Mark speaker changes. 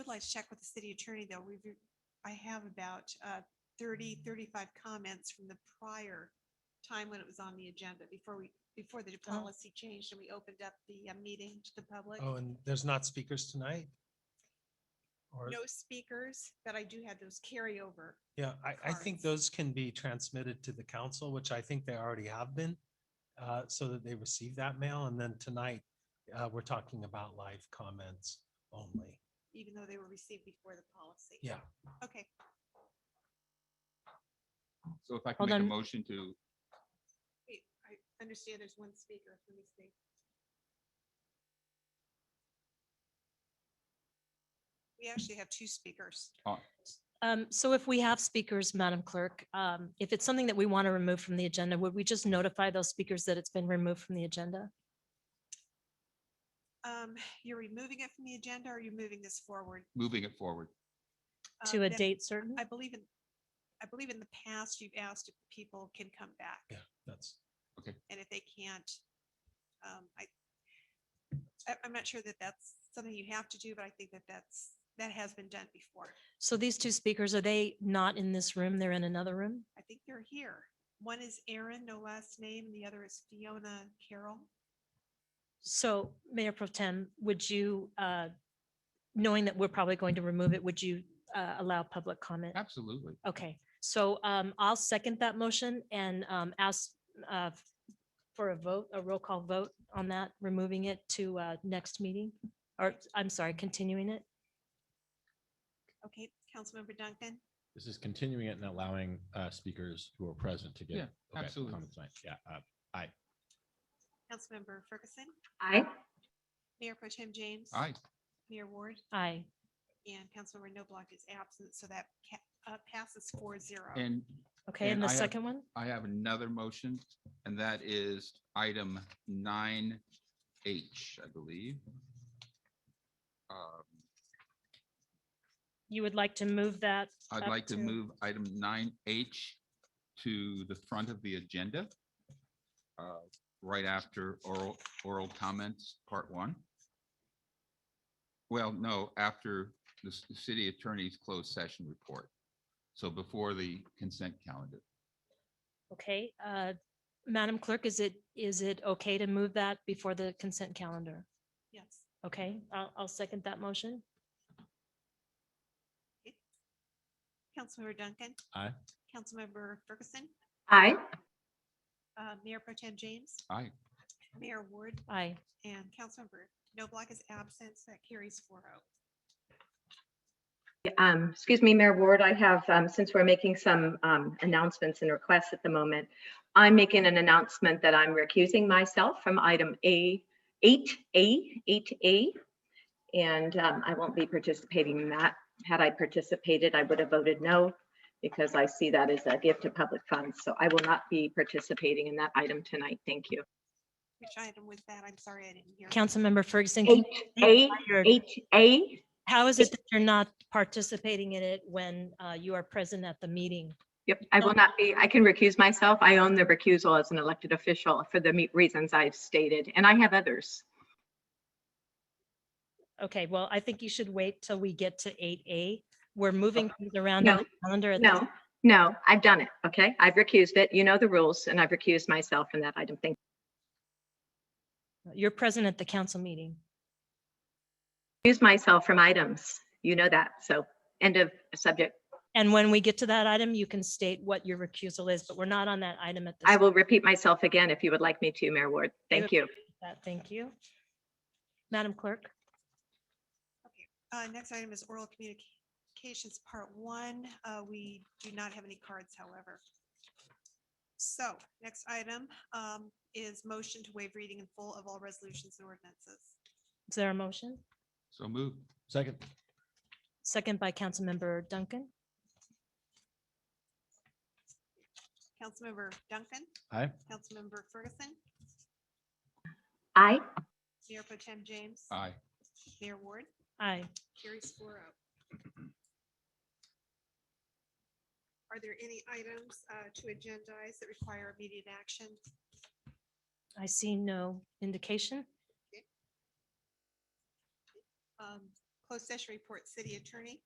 Speaker 1: realize check with the city attorney though. We've, re- I have about uh, 30,
Speaker 2: Mm.
Speaker 1: 35 comments from the prior time when it was on the agenda before we, before
Speaker 2: Oh.
Speaker 1: the policy changed and we opened up the uh, meeting to the public.
Speaker 2: Oh, and there's not speakers tonight? Or,
Speaker 1: No speakers, but I do have those carryover.
Speaker 2: yeah, I, I think
Speaker 1: cards.
Speaker 2: those can be transmitted to the council, which I think they already have been, uh, so that they receive that mail. And then tonight, uh, we're talking about live comments only.
Speaker 1: even though they were received before the policy.
Speaker 2: Yeah.
Speaker 1: Okay,
Speaker 3: So if I can
Speaker 4: Hold
Speaker 3: make a
Speaker 4: on.
Speaker 3: motion to,
Speaker 1: wait, I understand there's one speaker. Let me see. We actually have two speakers.
Speaker 4: Um, so if we have speakers, Madam Clerk, um, if it's something that we want to remove from the agenda, would we just notify those speakers that it's been removed from the agenda?
Speaker 1: Um, you're removing it from the agenda or you're moving this forward?
Speaker 3: moving it forward.
Speaker 1: Um,
Speaker 4: To a
Speaker 1: that-
Speaker 4: date certain?
Speaker 1: I believe in, I believe in the past you've asked if people can come back
Speaker 2: Yeah, that's,
Speaker 1: and if they can't, um, I, I, I'm not sure that that's something you have to do, but I think that that's, that has been done before.
Speaker 4: So these two speakers, are they not in this room? They're in another room?
Speaker 1: I think they're here. One is Aaron, no last name, and the other is Fiona Carroll.
Speaker 4: So Mayor Pro Tem, would you, uh, knowing that we're probably going to remove it, would you, uh, allow public comment?
Speaker 3: Absolutely.
Speaker 4: Okay, so, um, I'll second that motion and, um, ask, uh, for a vote, a roll call vote on that, removing it to, uh, next meeting? Or, I'm sorry, continuing it?
Speaker 1: Okay, Councilmember Duncan,
Speaker 5: This is continuing it and allowing uh, speakers who are present to get.
Speaker 3: Yeah,
Speaker 5: okay,
Speaker 3: absolutely.
Speaker 5: comments tonight. Yeah, uh,
Speaker 1: Councilmember Ferguson,
Speaker 6: Aye.
Speaker 1: Mayor Pro Tem James.
Speaker 3: Aye.
Speaker 1: Mayor Ward
Speaker 4: Aye.
Speaker 1: and Councilmember Noblock is absent, so that ca- uh, passes four zero.
Speaker 3: And
Speaker 4: Okay,
Speaker 3: And
Speaker 4: and the
Speaker 3: I have-
Speaker 4: second one?
Speaker 3: I have another motion, and that is item nine H, I believe. Um,
Speaker 4: You would like to move that?
Speaker 3: I'd
Speaker 4: Up
Speaker 3: like to
Speaker 4: to-
Speaker 3: move item nine H to the front of the agenda. uh, Right after oral, oral comments, part one. Well, no, after the s- the city attorney's closed session report. So before the consent calendar.
Speaker 4: Okay, uh, Madam Clerk, is it, is it okay to move that before the consent calendar?
Speaker 1: Yes.
Speaker 4: Okay, I'll, I'll second that motion.
Speaker 1: Councilmember Duncan.
Speaker 5: Aye.
Speaker 1: Councilmember Ferguson,
Speaker 6: Aye.
Speaker 1: uh, Mayor Pro Tem James,
Speaker 3: Aye.
Speaker 1: Mayor Ward
Speaker 4: Aye.
Speaker 1: and Councilmember Noblock is absent, so that carries four oh.
Speaker 6: Um, excuse me, Mayor Ward, I have, um, since we're making some, um, announcements and requests at the moment, I'm making an announcement that I'm recusing myself from item A, eight A, eight A. And, um, I won't be participating in that. Had I participated, I would have voted no because I see that as a gift to public funds. So I will not be participating in that item tonight. Thank you.
Speaker 1: Which item was that? I'm sorry, I didn't hear.
Speaker 4: Councilmember Ferguson, can
Speaker 6: Eight
Speaker 4: you
Speaker 6: A,
Speaker 4: clarify your-
Speaker 6: eight A,
Speaker 4: how is it that you're not participating in it when uh, you are present at the meeting?
Speaker 6: Yep, I will not be, I can recuse myself. I own the recusal as an elected official for the me- reasons I've stated, and I have others.
Speaker 4: Okay, well, I think you should wait till we get to eight A. We're moving things around
Speaker 6: No,
Speaker 4: on the calendar. at this-
Speaker 6: No, no, I've done it, okay? I've recused it. You know the rules, and I've recused myself in that item. Thank,
Speaker 4: You're present at the council meeting.
Speaker 6: recuse myself from items. You know that, so end of subject.
Speaker 4: And when we get to that item, you can state what your recusal is, but we're not on that item at this.
Speaker 6: I will repeat myself again if you would like me to, Mayor Ward. Thank you.
Speaker 4: that. Thank you. Madam Clerk?
Speaker 1: Uh, next item is oral communications, part one. Uh, we do not have any cards, however. So, next item, um, is motion to waive reading in full of all resolutions and ordinances.
Speaker 4: Is there a motion?
Speaker 3: So move.
Speaker 5: second,
Speaker 4: Second by Councilmember Duncan.
Speaker 1: Councilmember Duncan,
Speaker 5: aye.
Speaker 1: Councilmember Ferguson,
Speaker 6: Aye.
Speaker 1: Mayor Pro Tem James.
Speaker 3: Aye.
Speaker 1: Mayor Ward,
Speaker 4: Aye.
Speaker 1: carries four oh. Are there any items, uh, to agendize that require immediate action?
Speaker 4: I see no indication.
Speaker 1: Um, Closed session report, city attorney.